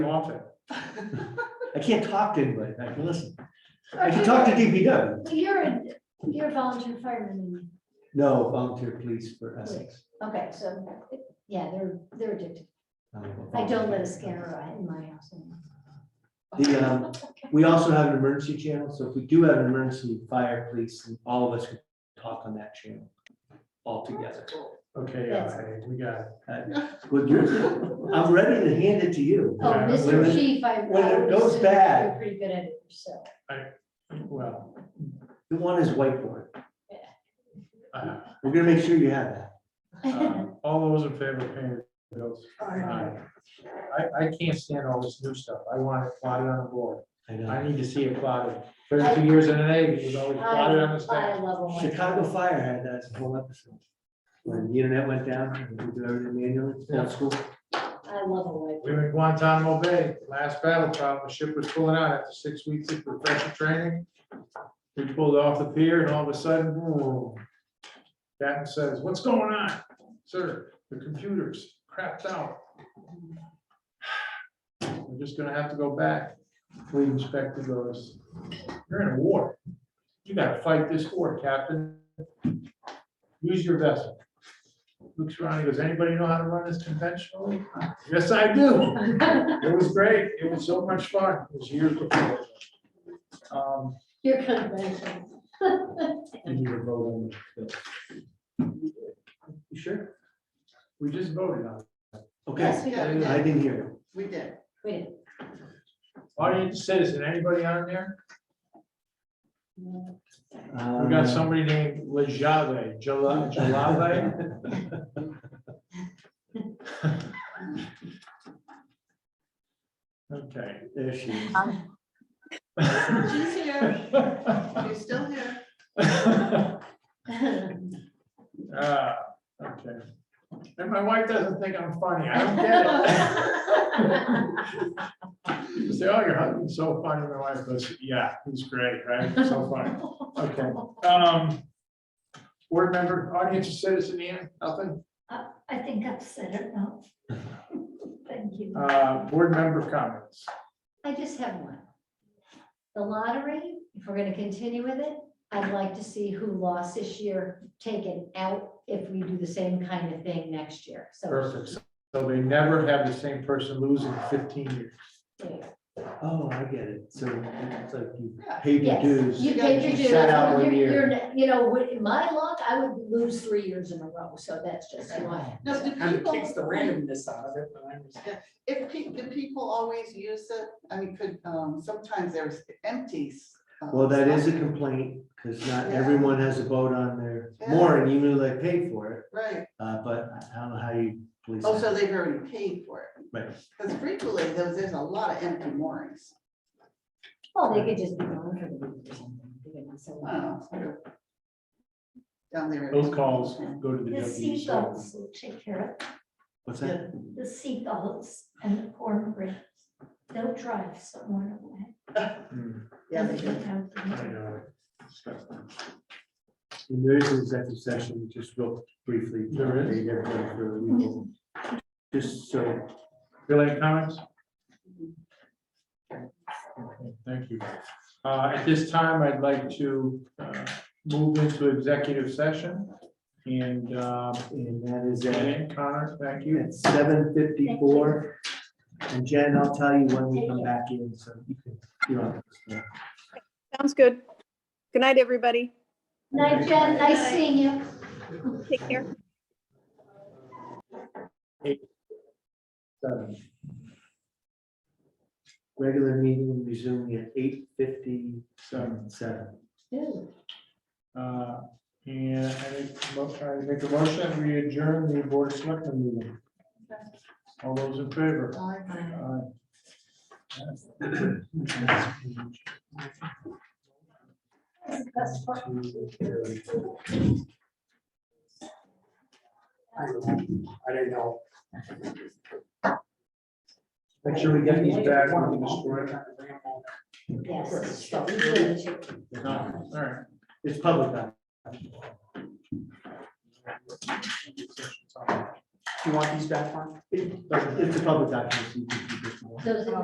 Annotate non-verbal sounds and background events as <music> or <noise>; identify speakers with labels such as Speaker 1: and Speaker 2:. Speaker 1: want it.
Speaker 2: <laughs>
Speaker 1: I can't talk to anybody, but I can listen. I can talk to DPW.
Speaker 2: Well, You're, a you're a volunteer fireman.
Speaker 1: No, volunteer police for Essex.
Speaker 2: Okay, so, yeah, they're, they're addicted.
Speaker 1: Um,
Speaker 2: I don't let a scanner in my house. anymore.
Speaker 1: The,
Speaker 3: uh,
Speaker 1: um, we also have an emergency channel, so if we do have an emergency, fire, police, and all of us can talk on that channel all together.
Speaker 3: Okay,
Speaker 2: Yes.
Speaker 3: yeah, hey, we got it.
Speaker 1: Uh, well, you're- I'm ready to hand it to you.
Speaker 2: Oh, Mr.
Speaker 1: When-
Speaker 2: Chief, I.
Speaker 1: when it
Speaker 2: I would
Speaker 1: goes
Speaker 2: assume
Speaker 1: bad.
Speaker 2: You're pretty good at it, so.
Speaker 3: Well,
Speaker 1: The one is whiteboard.
Speaker 3: uh,
Speaker 1: We're gonna make sure you have that.
Speaker 3: uh, all those in favor of paying the bills?
Speaker 2: Aye.
Speaker 3: I, I can't stand all this new stuff. I want it plotted on the board.
Speaker 1: I
Speaker 3: I
Speaker 1: know.
Speaker 3: need to see it plotted. Thirty-two years in the Navy, it was always plotted on
Speaker 2: <laughs>
Speaker 3: the
Speaker 2: I
Speaker 3: staff.
Speaker 2: love them.
Speaker 1: Oh, Chicago Fire had that as a whole episode. When the internet went down, we do everything manually,
Speaker 3: Yeah.
Speaker 1: that's cool.
Speaker 2: I love a white.
Speaker 3: We were in Guantanamo Bay, last battle problem, the ship was pulling out after six weeks of professional training. We pulled off the pier and all of a sudden, boom. Captain says, what's going on? Sir, the computer's crapped out. <sighs> We're just gonna have to go back. Fleet inspector goes, you're in a war. You gotta fight this war, Captain. Use your vessel. Looks around, he goes, anybody know how to run this conventionally? Yes, I do.
Speaker 2: <laughs>
Speaker 3: It was great. It was so much fun. It was years before. Um,
Speaker 2: Your convention.
Speaker 3: and you were voting.
Speaker 1: You sure?
Speaker 3: We just voted on it.
Speaker 1: Okay,
Speaker 2: Yes, we are.
Speaker 1: I
Speaker 2: yeah.
Speaker 1: didn't hear. it.
Speaker 4: We did.
Speaker 2: <laughs> Wait.
Speaker 3: Audience citizen, anybody on there?
Speaker 2: no.
Speaker 3: We
Speaker 1: Um,
Speaker 3: got somebody named Lajave, Jala, Jalave. Okay.
Speaker 1: <laughs> There she is.
Speaker 2: <laughs>
Speaker 3: <laughs>
Speaker 4: She's here. She's still here.
Speaker 3: Ah, Okay. And my wife doesn't think I'm funny. I don't get it. You say, oh, your husband's so funny, my wife goes, yeah, he's great, right? So funny, okay. Um, Board member, audience, citizen, Ian, nothing,
Speaker 2: I I think I've said it now. <laughs> Thank you.
Speaker 3: uh, board member comments.
Speaker 2: I just have one. The lottery, if we're gonna continue with it, I'd like to see who lost this year taken out if we do the same kind of thing next year. So,
Speaker 3: Perfect, so they never have the same person lose in fifteen years.
Speaker 2: yeah.
Speaker 1: Oh, I get it. So it's like you
Speaker 4: Yeah.
Speaker 1: paid your
Speaker 2: Yes,
Speaker 1: dues.
Speaker 2: you paid your
Speaker 1: You
Speaker 2: dues.
Speaker 1: sat out one
Speaker 2: You're-
Speaker 1: year.
Speaker 2: you're ne- You know, with my luck, I would lose three years in a row, so that's just why.
Speaker 4: Now, do
Speaker 5: Kind of takes the
Speaker 4: people,
Speaker 5: randomness out of it, but I understand.
Speaker 4: if, pe- do people always use it? I mean, could, um, sometimes there's empties. um,
Speaker 1: Well, that is a
Speaker 4: stuff.
Speaker 1: complaint because not
Speaker 4: Yeah.
Speaker 1: everyone has a vote on their
Speaker 4: Yeah.
Speaker 1: mooring, even though they paid for it.
Speaker 4: Right.
Speaker 1: Uh, but I don't know how you police
Speaker 4: Oh, so
Speaker 1: that.
Speaker 4: they've already paid for it.
Speaker 1: Right.
Speaker 4: Because frequently, there's, there's a lot of empty moorings.
Speaker 2: Well, they could just be monitored or something. they could be so-
Speaker 4: Wow.
Speaker 1: Oh,
Speaker 4: Down there.
Speaker 3: Those calls go to the E
Speaker 6: The
Speaker 3: deputy. so-
Speaker 6: seagulls will take care of, it.
Speaker 1: What's that?
Speaker 6: the seagulls and the cornbread. They'll drive someone away.
Speaker 5: Oh.
Speaker 3: Hmm,
Speaker 4: Yeah, they do.
Speaker 3: I
Speaker 6: do.
Speaker 3: know.
Speaker 1: And There is an executive session, just real briefly.
Speaker 3: There is?
Speaker 1: They get voted for legal. Just so,
Speaker 3: Bill, any comments? Okay, Thank you. Uh, At this time, I'd like to uh, move into executive session. And uh,
Speaker 1: and that is at
Speaker 3: Jan, Connor, thank you.
Speaker 1: seven fifty-four. And Jen, I'll tell you when we come back in, so you can, you're on.
Speaker 7: Sounds good. Good night, everybody.
Speaker 2: Night, Jen, nice seeing you.
Speaker 7: Take care.
Speaker 3: Seven.
Speaker 1: Regular meeting resuming at eight fifty-seven.
Speaker 2: Ooh,
Speaker 3: Uh, And I make mo- I make a motion, we adjourn the board of selectmen meeting. All those in favor?
Speaker 4: Aye.
Speaker 3: Aye.
Speaker 2: that's the best part.
Speaker 3: I didn't know. Make sure we get these back. we can destroy them.
Speaker 2: Yes. Really should.
Speaker 3: No, All right.
Speaker 1: It's public. now.
Speaker 3: All
Speaker 1: you want these back, Mark? It- It's a public document. so you can keep it.
Speaker 2: Those are